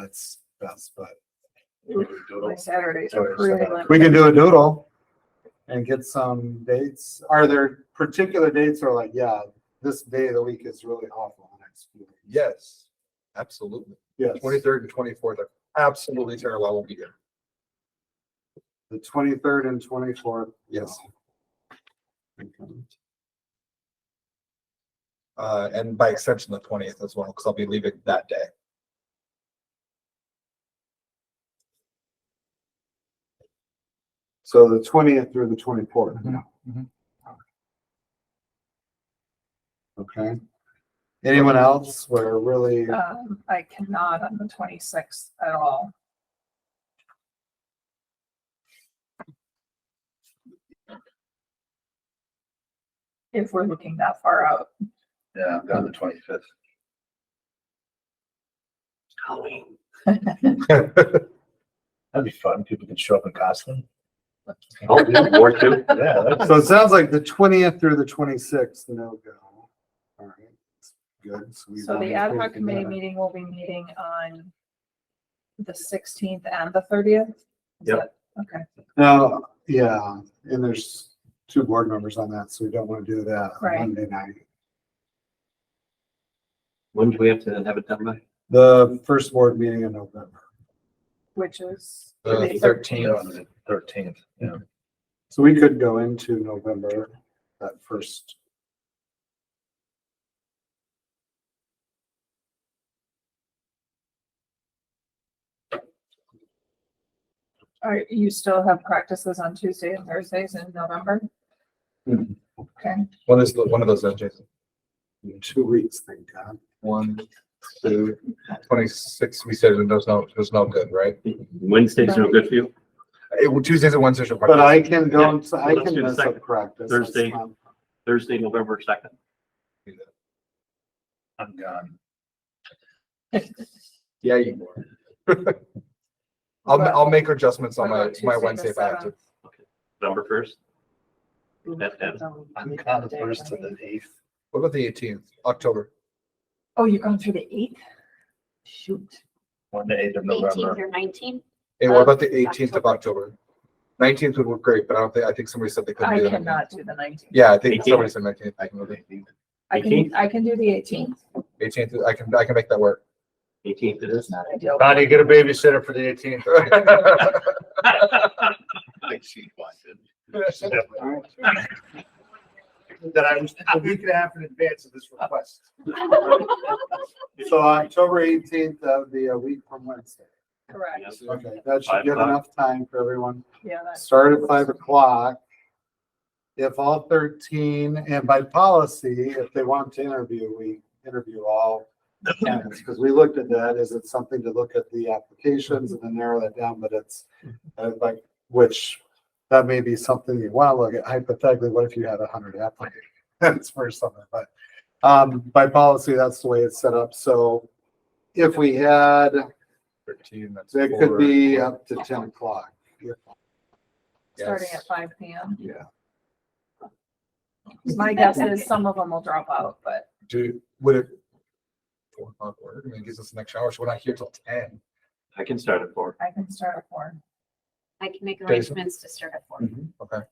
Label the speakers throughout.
Speaker 1: that's best, but.
Speaker 2: My Saturdays
Speaker 1: So
Speaker 2: are
Speaker 1: it's,
Speaker 2: really
Speaker 1: uh,
Speaker 2: limited.
Speaker 1: We can do a doodle and get some dates. Are there particular dates or like, yeah, this day of the week is really awful the next few weeks?
Speaker 3: Yes, absolutely.
Speaker 1: Yes,
Speaker 3: Twenty-third and twenty-fourth are absolutely terrible. I won't be here.
Speaker 1: the twenty-third and twenty-fourth.
Speaker 3: Yes. Uh, and by exception, the twentieth as well, because I'll be leaving that day.
Speaker 1: So the twentieth through the twenty-fourth. Mm-hmm,
Speaker 3: mhm.
Speaker 1: Okay. Anyone else? We're really,
Speaker 2: Um, I cannot on the twenty-sixth at all. If we're looking that far out,
Speaker 4: Yeah, I'm gone the twenty-fifth. That'd be fun. People can show up in costume.
Speaker 5: Oh, yeah, War two.
Speaker 4: Yeah, that's,
Speaker 1: so it sounds like the twentieth through the twenty-sixth, no go. All right. Good. we
Speaker 2: so
Speaker 1: want
Speaker 2: the
Speaker 1: to
Speaker 2: ad
Speaker 1: put
Speaker 2: hoc
Speaker 1: it together.
Speaker 2: committee meeting will be meeting on the sixteenth and the thirtieth?
Speaker 4: Yep.
Speaker 2: Okay,
Speaker 1: No, yeah, and there's two board members on that, so we don't want to do that on
Speaker 2: Right.
Speaker 1: Monday night.
Speaker 5: When do we have to have it done by?
Speaker 1: The first board meeting in November.
Speaker 2: which is.
Speaker 3: The
Speaker 4: you know, on
Speaker 3: Uh, thirteenth,
Speaker 4: the thirteenth, yeah.
Speaker 1: So we could go into November, that first.
Speaker 2: Are, you still have practices on Tuesday and Thursdays in November?
Speaker 1: Mhm.
Speaker 2: Okay,
Speaker 3: one is, one of those, days, Jason.
Speaker 1: in Two weeks, thank God.
Speaker 3: One, two, twenty-six, we said it does no, there's no good, right?
Speaker 5: Wednesdays are good for you?
Speaker 3: Eh, well, Tuesdays and Wednesdays are.
Speaker 1: But I can
Speaker 5: Yeah,
Speaker 1: go, I
Speaker 5: let's do
Speaker 1: can
Speaker 5: the
Speaker 1: mess up
Speaker 5: second.
Speaker 1: practice. that's
Speaker 5: Thursday.
Speaker 1: fine.
Speaker 5: Thursday, November second.
Speaker 4: I'm gone.
Speaker 3: Yeah, you are. I'll,
Speaker 2: What-
Speaker 3: I'll make adjustments
Speaker 2: what
Speaker 3: on my,
Speaker 2: about
Speaker 3: my
Speaker 2: Tuesday the
Speaker 3: Wednesday if I have to.
Speaker 2: 7th?
Speaker 5: November first? That- that-
Speaker 4: I'm gone the first to the eighth.
Speaker 3: What about the eighteenth, October?
Speaker 2: Oh, you're going through the eighth? Shoot.
Speaker 4: One to eighth of
Speaker 6: Eighteenth
Speaker 4: November.
Speaker 6: or nineteenth?
Speaker 3: Hey, what
Speaker 6: Uh,
Speaker 3: about the eighteenth of October? Nineteenth would work great, but I don't think, I think somebody said they couldn't
Speaker 2: I
Speaker 3: do that.
Speaker 2: cannot do the nineteenth.
Speaker 3: Yeah, I think
Speaker 5: 18th?
Speaker 3: somebody said nineteenth.
Speaker 4: I can really think
Speaker 2: I can,
Speaker 5: 18th?
Speaker 2: I can do the eighteenth.
Speaker 3: Eighteenth, I can, I can make that work.
Speaker 5: Eighteenth it is.
Speaker 2: Not ideal.
Speaker 4: Bonnie, get a babysitter for the eighteenth. She wanted.
Speaker 1: All right.
Speaker 4: That I was a week and a half in advance of this request.
Speaker 1: So October eighteenth, that would be a week from Wednesday.
Speaker 2: Correct.
Speaker 1: Okay, that should
Speaker 5: Five
Speaker 1: give
Speaker 5: o'clock.
Speaker 1: enough time for everyone.
Speaker 2: Yeah, that's,
Speaker 1: start at five o'clock. If all thirteen, and by policy, if they want to interview, we interview all candidates, because we looked at that, is it something to look at the applications and then narrow that down, but it's uh, like, which that may be something you want to look at hypothetically, what if you had a hundred applicants for something, but um, by policy, that's the way it's set up, so if we had,
Speaker 3: Thirteen, that's.
Speaker 1: it
Speaker 3: four.
Speaker 1: could be up to ten o'clock.
Speaker 2: starting at
Speaker 3: Yes.
Speaker 2: five P M.
Speaker 1: Yeah.
Speaker 2: My guess is some of them will drop out, but
Speaker 3: Do, would it? Four o'clock work, I mean, it gives us the next hour, so we're not here till ten.
Speaker 5: I can start at four.
Speaker 2: I can start at four.
Speaker 6: I can make
Speaker 3: Jason?
Speaker 6: arrangements to start at four.
Speaker 3: Okay.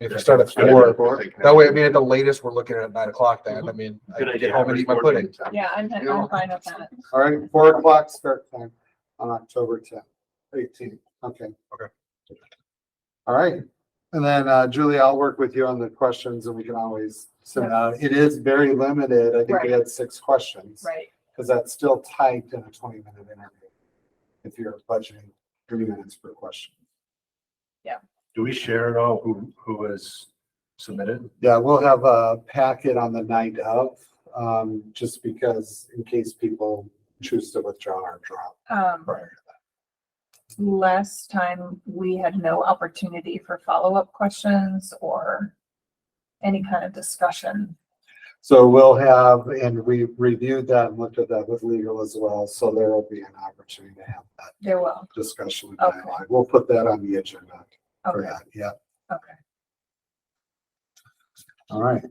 Speaker 3: If we start at
Speaker 1: Yeah.
Speaker 3: four, that way, I mean, at the latest, we're looking at nine o'clock then, I mean, I
Speaker 5: Good
Speaker 3: can
Speaker 5: idea.
Speaker 3: get home and eat my pudding.
Speaker 2: Yeah, I'm, I'm fine with that.
Speaker 1: All right, four o'clock start time on October tenth, eighteenth, okay.
Speaker 3: Okay.
Speaker 1: All right, and then uh, Julie, I'll work with you on the questions and we can always send out. It is very limited. I think we
Speaker 2: Right.
Speaker 1: had six questions.
Speaker 2: Right.
Speaker 1: Because that's still typed in a twenty minute interview. If you're budgeting thirty minutes per question.
Speaker 4: Do we share at all who, who was submitted?
Speaker 1: Yeah, we'll have a packet on the night of, um, just because in case people choose to withdraw or drop
Speaker 2: Um,
Speaker 1: prior.
Speaker 2: last time we had no opportunity for follow-up questions or any kind of discussion.
Speaker 1: So we'll have, and we reviewed that and looked at that with legal as well, so there will be an opportunity to have that
Speaker 2: There will.
Speaker 1: discussion. and
Speaker 2: Okay.
Speaker 1: dialogue. We'll put that on the agenda for
Speaker 2: Okay,
Speaker 1: that, yeah,
Speaker 2: okay.
Speaker 1: all right.